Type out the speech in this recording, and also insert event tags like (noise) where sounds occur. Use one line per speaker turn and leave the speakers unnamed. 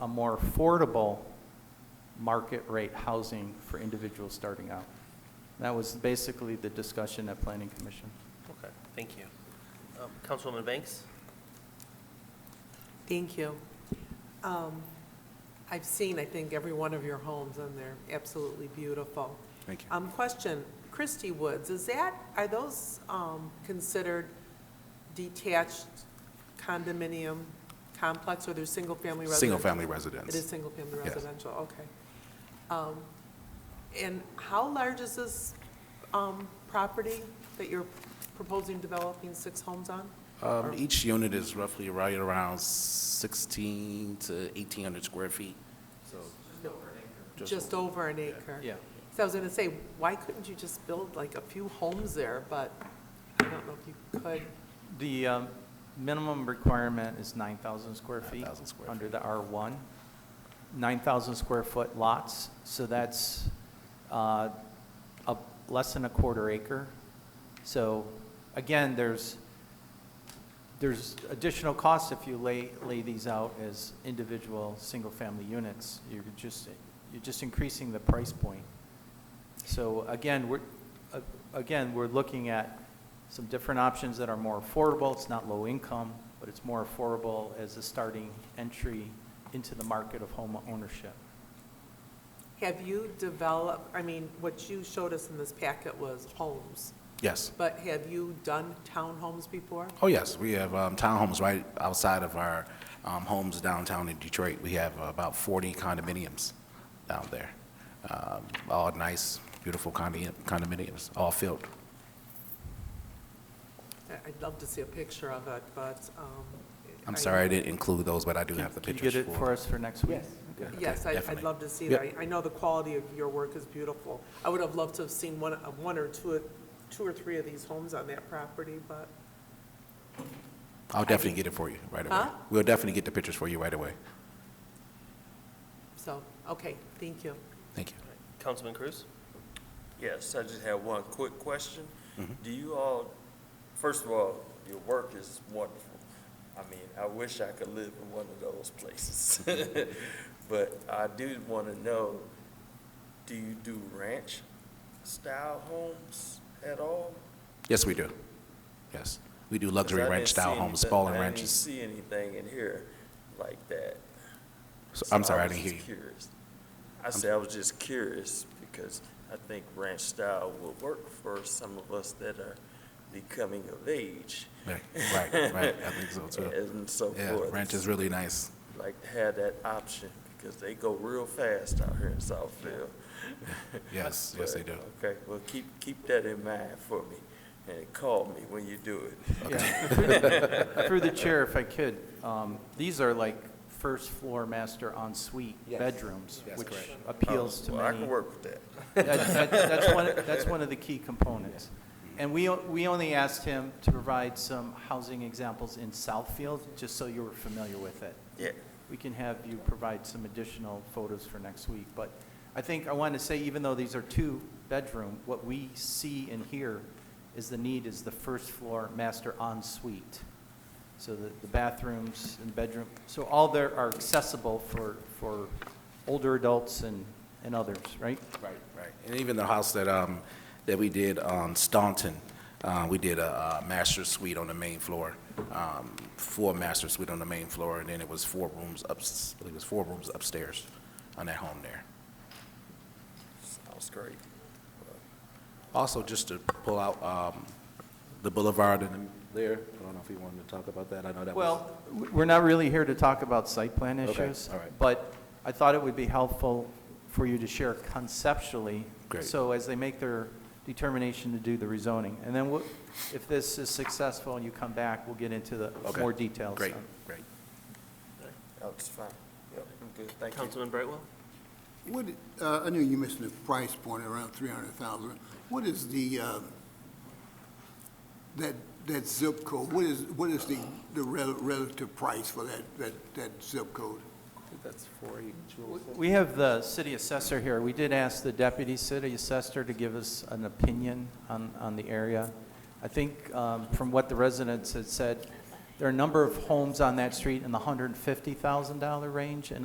a more affordable market rate housing for individuals starting out. That was basically the discussion at Planning Commission.
Okay, thank you. Um, Councilwoman Banks?
Thank you. Um, I've seen, I think, every one of your homes and they're absolutely beautiful.
Thank you.
Um, Question, Christie Woods, is that, are those um, considered detached condominium complex or they're single-family residential?
Single-family
It is
residence.
single-family
Yes.
residential, okay. Um, And how large is this um, property that you're proposing developing six homes on?
Um, Each unit is roughly right around 16 to 1,800 square feet, so. Just
Just over an acre?
Yeah.
So I was gonna say, why couldn't you just build like a few homes there, but I don't know if you could.
The um, minimum requirement is 9,000 square feet.
9,000 square
Under the R1. 9,000 square foot lots, so that's uh, a- less than a quarter acre. So again, there's, there's additional costs if you lay, lay these out as individual, single-family units. You're just, you're just increasing the price point. So again, we're, a- again, we're looking at some different options that are more affordable. It's not low income, but it's more affordable as a starting entry into the market of home ownership.
Have you developed, I mean, what you showed us in this packet was homes,
Yes.
but have you done townhomes before?
Oh, yes, we have um, townhomes right outside of our um, homes downtown in Detroit. We have about 40 condominiums down there, Um, all nice, beautiful condi- condominiums, all filled.
I- I'd love to see a picture of it, but, um.
I'm
I-
sorry I didn't include those, but I do have the
Can you
pictures
get
for...
it for us for next week?
Yes.
Okay.
Yes, I- I'd
definitely.
love to see
Yep.
that. I- I know the quality of your work is beautiful. I would have loved to have seen one, uh, one or two, two or three of these homes on that property, but
I'll definitely get it for you right away.
Huh?
We'll definitely get the pictures for you right away.
So, okay, thank you.
Thank you.
Councilman Cruz?
Yes, I just have one quick question.
Mm-hmm.
Do you all, first of all, your work is wonderful. I mean, I wish I could live in one of those places. (laughs) But I do want to know, do you do ranch-style homes at all?
Yes, we do. Yes. We do
'Cause I
luxury
didn't
ranch-style
see
homes,
anything-
spalling
I didn't
ranches.
see anything in here like that.
So-
So
I'm sorry, I
was
didn't hear
just (laughs)
you.
curious. I said, I was just curious, because I think ranch style will work for some of us that are becoming of age.
Right, right, right. I think so, too.
(laughs) And so
Yeah,
forth.
ranch is really nice.
Like to have that option, because they go real fast out here in Southfield.
(laughs)
(laughs)
Yes, yes, they do.
But, Okay, well, keep, keep that in mind for me, and call me when you do it.
Yeah.
(laughs)
Through the- Through the chair, if I could, um, these are like first floor master en suite
Yes.
bedrooms,
Yes,
which
correct.
appeals to
Oh, Well, I
many.
can work with that.
That- that- That's one, that's one of the key components. And we, o- we only asked him to provide some housing examples in Southfield, just so you were familiar with it.
Yeah,
We can have you provide some additional photos for next week. But I think I want to say, even though these are two-bedroom, what we see and hear is the need is the first floor master en suite. So the the bathrooms and bedroom, so all there are accessible for, for older adults and, and others, right?
Right, right. And even the house that, um, that we did on Staunton, uh, we did a, uh master suite on the main floor, um, four master suite on the main floor, and then it was four rooms ups, I believe it was four rooms upstairs on that home there.
sounds great.
Also, just to pull out, um, the boulevard and there, I don't know if you wanted to talk about that, I know that was.
Well, w- we're not really here to talk about site plan
Okay,
issues.
all right.
But I thought it would be helpful for you to share conceptually.
Great.
So as they make their determination to do the rezoning. And then we'll- if this is successful and you come back, we'll get into the
Okay,
more details.
Great,
on-
great.
That's oh, fine. Yep, I'm good, thank you.
Councilman Brightwell?
What, uh, I know you mentioned the price point around three hundred thousand. What is the, uh, that, that zip code? What is, what is the, the rel- relative price for that, that, that zip code?
That's four
W- We have the city assessor here. We did ask the deputy city assessor to give us an opinion on, on the area. I think um, from what the residents had said, there are a number of homes on that street in the $150,000 range and